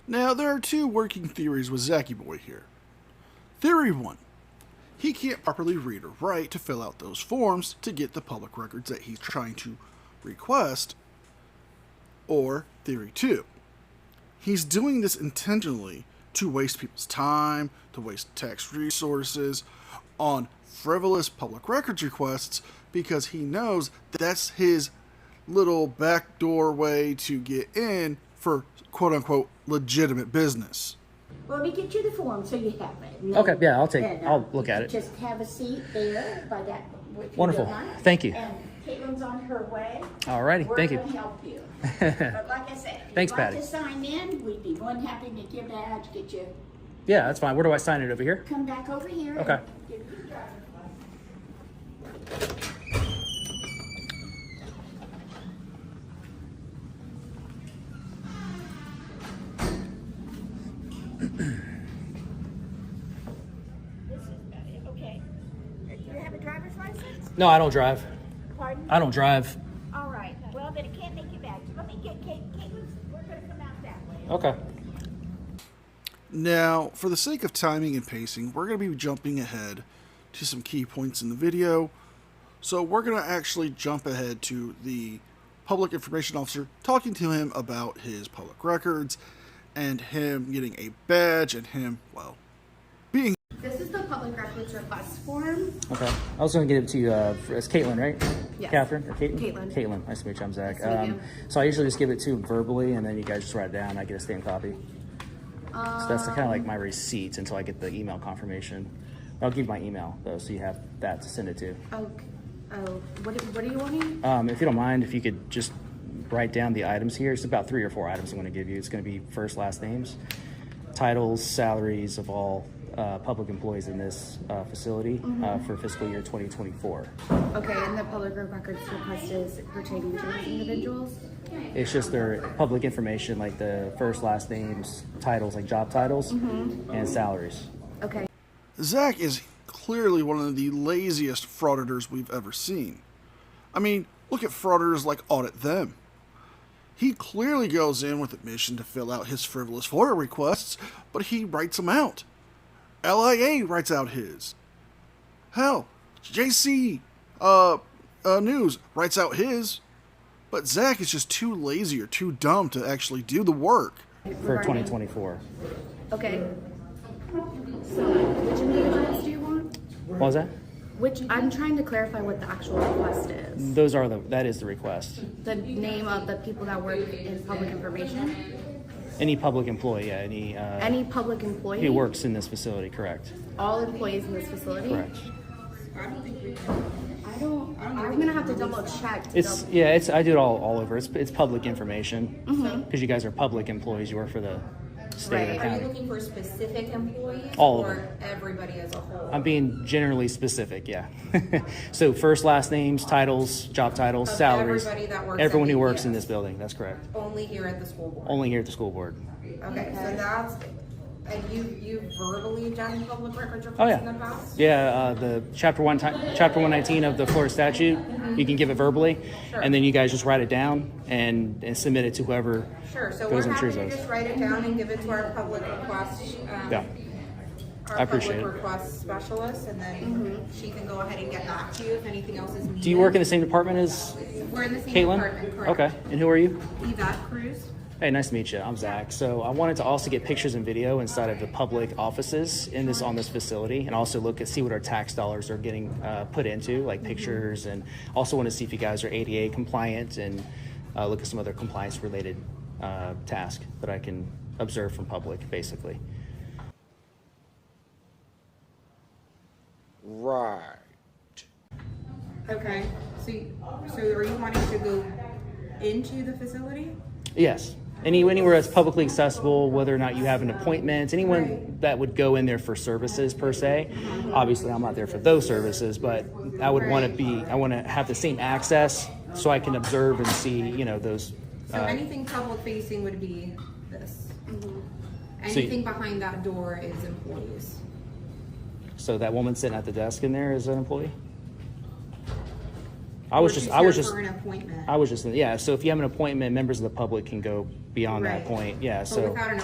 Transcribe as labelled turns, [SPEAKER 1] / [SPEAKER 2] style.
[SPEAKER 1] Now, there are two working theories with Zacky Boy here. Theory 1 He can't properly read or write to fill out those forms to get the public records that he's trying to request. Or Theory 2 He's doing this intentionally to waste people's time, to waste tax resources on frivolous public records requests because he knows that's his little backdoor way to get in for quote unquote legitimate business.
[SPEAKER 2] Well, let me get you the form so you have it. And
[SPEAKER 3] Okay,
[SPEAKER 2] then-
[SPEAKER 3] yeah, I'll take-
[SPEAKER 2] then, uh,
[SPEAKER 3] I'll look at it.
[SPEAKER 2] Just have a seat there by that. if you don't
[SPEAKER 3] Wonderful.
[SPEAKER 2] mind.
[SPEAKER 3] Thank you.
[SPEAKER 2] And Caitlin's on her way.
[SPEAKER 3] All righty.
[SPEAKER 2] We're
[SPEAKER 3] Thank you.
[SPEAKER 2] gonna help you. But like I said, if
[SPEAKER 3] Thanks,
[SPEAKER 2] you'd like
[SPEAKER 3] Patty.
[SPEAKER 2] to sign in, we'd be more than happy to give that, out, get you,
[SPEAKER 3] Yeah, that's fine. Where do I sign it over here?
[SPEAKER 2] come back over here. and
[SPEAKER 3] Okay.
[SPEAKER 2] give you your driver's license. This is about it, uh, okay. Do you have a driver's license?
[SPEAKER 3] No, I don't drive.
[SPEAKER 2] Pardon?
[SPEAKER 3] I don't drive.
[SPEAKER 2] All right, well, then it can't make you back. Let me get Kate, Caitlin's, we're gonna come out that way.
[SPEAKER 3] Okay.
[SPEAKER 1] Now, for the sake of timing and pacing, we're going to be jumping ahead to some key points in the video. So, we're going to actually jump ahead to the public information officer talking to him about his public records and him getting a badge and him, well, being
[SPEAKER 4] This is the public records request form.
[SPEAKER 3] Okay. I was going to give it to you. Uh, for, it's Caitlin, right?
[SPEAKER 4] Yes.
[SPEAKER 3] Catherine or Caitlin?
[SPEAKER 4] Caitlin.
[SPEAKER 3] Caitlin. Nice to meet you. I'm Zach. Um,
[SPEAKER 4] Nice to meet you.
[SPEAKER 3] so I usually just give it to you verbally, and then you guys just write it down. I get a stamped copy. so that's kind of like
[SPEAKER 4] Um.
[SPEAKER 3] my receipt until I get the email confirmation. I'll give you my email though, so you have that to send it to.
[SPEAKER 4] Oh, oh, what, what are you wanting?
[SPEAKER 3] Um, if you don't mind, if you could just write down the items here. It's about three or four items I'm going to give you. It's going to be first, last names, titles, salaries of all uh, public employees in this uh, facility uh, for fiscal year 2024.
[SPEAKER 4] Okay, and the public records request is pertaining to these individuals?
[SPEAKER 3] It's just their public information, like the first, last names, titles, like job titles, and salaries.
[SPEAKER 4] Okay,
[SPEAKER 1] Zach is clearly one of the laziest frauditors we've ever seen. I mean, look at frauditors like Audit Them. He clearly goes in with a mission to fill out his frivolous FOIA requests, but he writes them out. LIA writes out his. Hell, JC uh, uh, News writes out his. But Zach is just too lazy or too dumb to actually do the work.
[SPEAKER 3] For 2024.
[SPEAKER 4] okay. So which individuals do you want?
[SPEAKER 3] What was that?
[SPEAKER 4] Which, I'm trying to clarify what the actual request is.
[SPEAKER 3] Those are the, that is the request.
[SPEAKER 4] The name of the people that work in public information?
[SPEAKER 3] Any public employee, yeah, any, uh,
[SPEAKER 4] Any public employee?
[SPEAKER 3] he works in this facility, correct?
[SPEAKER 4] All employees in this facility?
[SPEAKER 3] Correct.
[SPEAKER 4] I don't, I'm gonna have to double check. to
[SPEAKER 3] It's,
[SPEAKER 4] double-
[SPEAKER 3] yeah, it's, I do it all, all over. It's, it's public information.
[SPEAKER 5] Mm-hmm.
[SPEAKER 3] Because you guys are public employees, you work for the state or
[SPEAKER 4] Right.
[SPEAKER 5] Are you
[SPEAKER 3] county.
[SPEAKER 5] looking for specific employees?
[SPEAKER 3] All of
[SPEAKER 5] Or
[SPEAKER 3] them.
[SPEAKER 5] everybody as a whole?
[SPEAKER 3] I'm being generally specific, yeah. so first, last names, titles, job titles,
[SPEAKER 5] Of
[SPEAKER 3] salaries.
[SPEAKER 5] everybody that works
[SPEAKER 3] everyone
[SPEAKER 5] at
[SPEAKER 3] who
[SPEAKER 5] the-
[SPEAKER 3] works in
[SPEAKER 5] yes.
[SPEAKER 3] this building. That's correct.
[SPEAKER 5] Only here at the school board?
[SPEAKER 3] Only here at the school board.
[SPEAKER 5] Okay, so that's, and you, you verbally done public records
[SPEAKER 3] Oh
[SPEAKER 5] reports in the
[SPEAKER 3] yeah,
[SPEAKER 5] past?
[SPEAKER 3] yeah. Uh, the chapter one, ti- chapter one nineteen of the Florida statute.
[SPEAKER 5] Mm-hmm.
[SPEAKER 3] You can give it verbally, and then you guys just write it down and, and submit it to whoever
[SPEAKER 5] Sure, so we're
[SPEAKER 3] goes and
[SPEAKER 5] happy
[SPEAKER 3] chooses.
[SPEAKER 5] to just write it down and give it to our public request,
[SPEAKER 3] Yeah.
[SPEAKER 5] um,
[SPEAKER 3] I
[SPEAKER 5] our
[SPEAKER 3] appreciate it.
[SPEAKER 5] public request specialist, and then she can go ahead and get back to you if anything else is needed.
[SPEAKER 3] Do you work in the same department as
[SPEAKER 5] We're in the same
[SPEAKER 3] Caitlin?
[SPEAKER 5] department, correct?
[SPEAKER 3] Okay. And who are you?
[SPEAKER 5] Yvette Cruz?
[SPEAKER 3] Hey, nice to meet you. I'm Zach. So I wanted to also get pictures and video inside of the public offices in this on this facility, and also look at see what our tax dollars are getting uh, put into, like pictures, and also want to see if you guys are ADA compliant and uh, look at some other compliance related uh, task that I can observe from public, basically.
[SPEAKER 6] Right.
[SPEAKER 5] Okay, so, you- so are you wanting to go into the facility?
[SPEAKER 3] Yes. Any, anywhere that's publicly accessible, whether or not you have an appointment, anyone that would go in there for services per se. Obviously, I'm not there for those services, but I would want to be, I want to have the same access so I can observe and see, you know, those. uh,
[SPEAKER 5] So anything public facing would be this.
[SPEAKER 3] So you-
[SPEAKER 5] Anything behind that door is employees.
[SPEAKER 3] So that woman sitting at the desk in there is an employee. I was
[SPEAKER 5] Or
[SPEAKER 3] just,
[SPEAKER 5] she's
[SPEAKER 3] I was
[SPEAKER 5] here
[SPEAKER 3] just,
[SPEAKER 5] For an appointment.
[SPEAKER 3] I was just, yeah. So if you have an appointment, members of the public can go beyond that
[SPEAKER 5] Right.
[SPEAKER 3] point. Yeah.
[SPEAKER 5] But
[SPEAKER 3] So.
[SPEAKER 5] without an